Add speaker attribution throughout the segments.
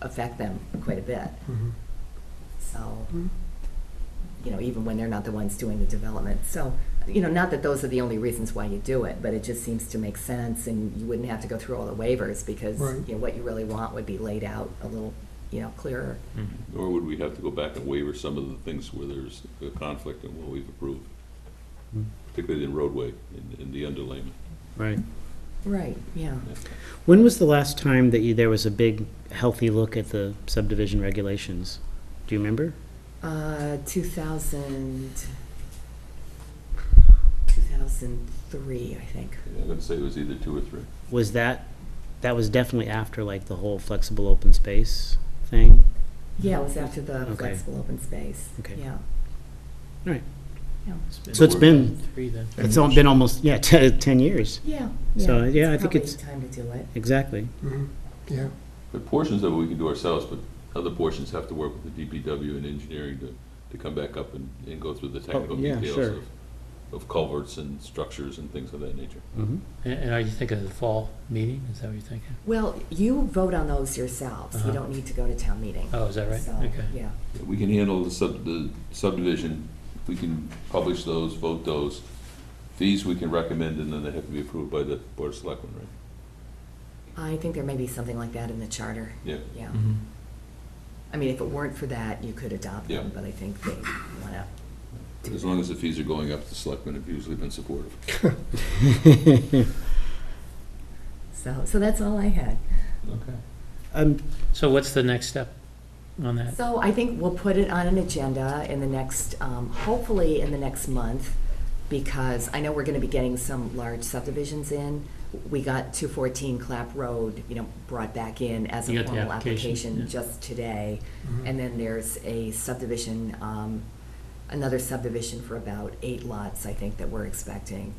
Speaker 1: affect them quite a bit.
Speaker 2: Mhm.
Speaker 1: So, you know, even when they're not the ones doing the development. So, you know, not that those are the only reasons why you do it, but it just seems to make sense and you wouldn't have to go through all the waivers because,
Speaker 2: Right.
Speaker 1: you know, what you really want would be laid out a little, you know, clearer.
Speaker 3: Or would we have to go back and waiver some of the things where there's a conflict and what we've approved?
Speaker 4: Hmm.
Speaker 3: Particularly in roadway, in, in the underlayment.
Speaker 4: Right.
Speaker 1: Right, yeah.
Speaker 4: When was the last time that you, there was a big, healthy look at the subdivision regulations? Do you remember?
Speaker 1: Uh, 2000, 2003, I think.
Speaker 3: Yeah, I'd say it was either two or three.
Speaker 4: Was that, that was definitely after like the whole flexible open space thing?
Speaker 1: Yeah, it was after the
Speaker 4: Okay.
Speaker 1: flexible open space.
Speaker 4: Okay.
Speaker 1: Yeah.
Speaker 4: Right.
Speaker 1: Yeah.
Speaker 4: So it's been,
Speaker 5: Three then.
Speaker 4: it's all been almost, yeah, te- ten years,
Speaker 1: Yeah.
Speaker 4: So, yeah, I think
Speaker 1: probably
Speaker 4: it's-
Speaker 1: Time to do it.
Speaker 4: exactly.
Speaker 2: Mhm. Yeah,
Speaker 3: But portions of it we can do ourselves, but other portions have to work with the DPW and engineering to, to come back up and, and go through the technical
Speaker 4: Oh, yeah,
Speaker 3: details
Speaker 4: sure.
Speaker 3: of, of culverts and structures and things of that nature.
Speaker 4: Mhm.
Speaker 5: And, and are you thinking of the fall meeting? Is that what you're thinking?
Speaker 1: Well, you vote on those yourselves. You
Speaker 5: Uh-huh.
Speaker 1: don't need to go to town meeting.
Speaker 5: Oh, is that right?
Speaker 1: So,
Speaker 5: Okay.
Speaker 1: Yeah.
Speaker 3: We can handle the sub, the subdivision, we can publish those, vote those. Fees we can recommend, and then they have to be approved by the Board of Selectmen, right?
Speaker 1: I think there may be something like that in the charter.
Speaker 3: Yeah.
Speaker 1: Yeah.
Speaker 4: Mm-hmm.
Speaker 5: Mhm.
Speaker 1: I mean, if it weren't for that, you could adopt
Speaker 3: Yeah.
Speaker 1: them, but I think they want to.
Speaker 3: But As long as the fees are going up, the selectmen have usually been supportive.
Speaker 1: So, so that's all I had.
Speaker 3: Okay.
Speaker 4: Um,
Speaker 5: So what's the next step on that?
Speaker 1: So I think we'll put it on an agenda in the next, um, hopefully in the next month, because I know we're gonna be getting some large subdivisions in. We got two fourteen Clap Road, you know, brought back in as
Speaker 5: You
Speaker 1: a
Speaker 5: got the
Speaker 1: formal
Speaker 5: application,
Speaker 1: application
Speaker 5: yeah.
Speaker 1: just today. And then there's a subdivision, um, another subdivision for about eight lots, I think, that we're expecting.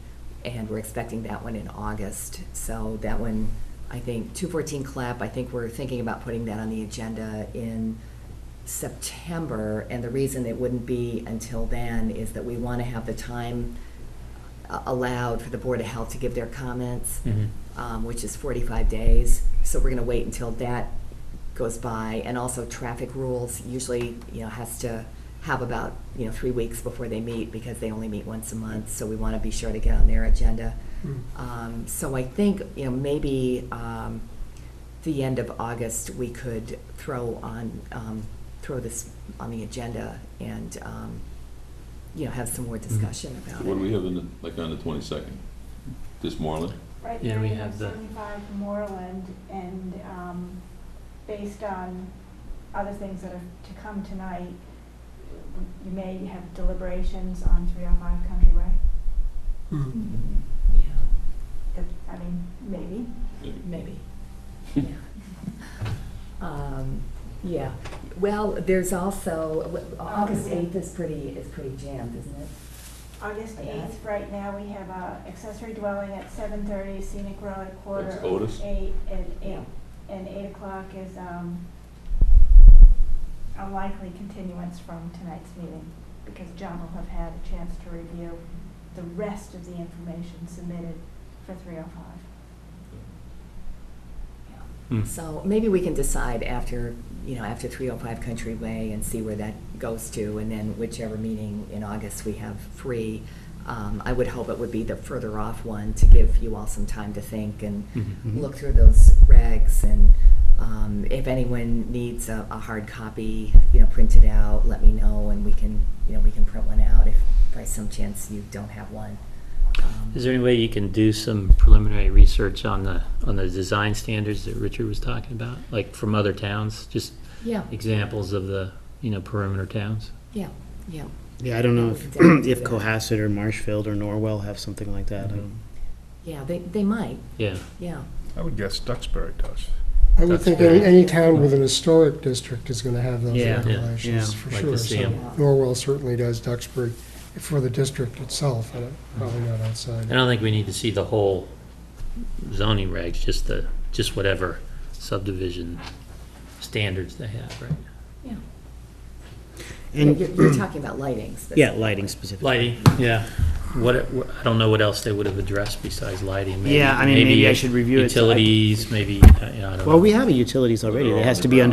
Speaker 1: And we're expecting that one in August. So that one, I think, 214 Clap, I think we're thinking about putting that on the agenda in September. And the reason it wouldn't be until then is that we want to have the time a- allowed for the Board of Health to give their comments
Speaker 5: Mhm.
Speaker 1: um, which is 45 days. So we're going to wait until that goes by. And also traffic rules usually, you know, has to have about, you know, three weeks before they meet because they only meet once a month. So we want to be sure to get on their agenda.
Speaker 2: Mm.
Speaker 1: Um, So I think, you know, maybe um, the end of August, we could throw on, um, throw this on the agenda and, um, you know, have some more discussion about it.
Speaker 3: Hmm. What do we have in, the- like, on the twenty-second? This Moreland?
Speaker 6: Right
Speaker 5: Yeah,
Speaker 6: now,
Speaker 5: we
Speaker 6: you
Speaker 5: have
Speaker 6: have
Speaker 5: the-
Speaker 6: seventy-five Moreland, and um, based on other things that are to come tonight, you may have deliberations on three oh five Country Way.
Speaker 2: Mhm.
Speaker 1: Yeah.
Speaker 6: If- I mean, maybe.
Speaker 1: Maybe. Yeah. Um, Yeah, well, there's also, w- August 8th is pretty, is pretty jammed, isn't it?
Speaker 6: August
Speaker 1: Yeah.
Speaker 6: eighth, right now, we have a accessory dwelling at seven thirty, scenic road at quarter.
Speaker 3: That's Otis?
Speaker 6: Eight, and eight, and eight o'clock is um, a likely continuance from tonight's meeting, because John will have had a chance to review the rest of the information submitted for three oh five.
Speaker 5: Hmm.
Speaker 1: So maybe we can decide after, you know, after 305 Country Way and see where that goes to, and then whichever meeting in August we have free. um, I would hope it would be the further off one to give you all some time to think and
Speaker 4: Mhm.
Speaker 1: look through those regs. And um, if anyone needs a a hard copy, you know, printed out, let me know, and we can, you know, we can print one out if by some chance you don't have one. Um,
Speaker 5: Is there any way you can do some preliminary research on the, on the design standards that Richard was talking about? Like from other towns, just
Speaker 1: Yeah,
Speaker 5: examples of the, you know, perimeter towns?
Speaker 1: yeah, yeah.
Speaker 4: yeah, I don't know
Speaker 1: Yeah, we
Speaker 4: if,
Speaker 1: can definitely
Speaker 4: if
Speaker 1: do that.
Speaker 4: Cohasset or Marshfield or Norwell have something like that. I don't-
Speaker 1: Yeah, they, they might,
Speaker 5: Yeah.
Speaker 1: yeah.
Speaker 7: I would guess Duxbury does.
Speaker 2: I would think any, any town with an historic district is gonna have those
Speaker 4: Yeah, yeah,
Speaker 2: regulations,
Speaker 4: yeah.
Speaker 2: for
Speaker 5: Like
Speaker 2: sure.
Speaker 5: to see
Speaker 2: So
Speaker 5: 'em.
Speaker 2: Norwell certainly does Duxbury, for the district itself, and probably not
Speaker 5: I
Speaker 2: outside.
Speaker 5: don't think we need to see the whole zoning regs, just the, just whatever subdivision standards they have, right?
Speaker 1: Yeah,
Speaker 4: And-
Speaker 1: you're, you're talking about lighting specifically.
Speaker 4: Yeah, lighting specifically.
Speaker 5: Lighting, yeah. What, I don't know what else they would have addressed besides lighting.
Speaker 4: Yeah, I mean, maybe I should review it. so I-
Speaker 5: Utilities, maybe, uh, you know, I don't know.
Speaker 4: Well, we have a utilities already.
Speaker 3: They're
Speaker 4: It
Speaker 3: all
Speaker 4: has to be
Speaker 3: underground.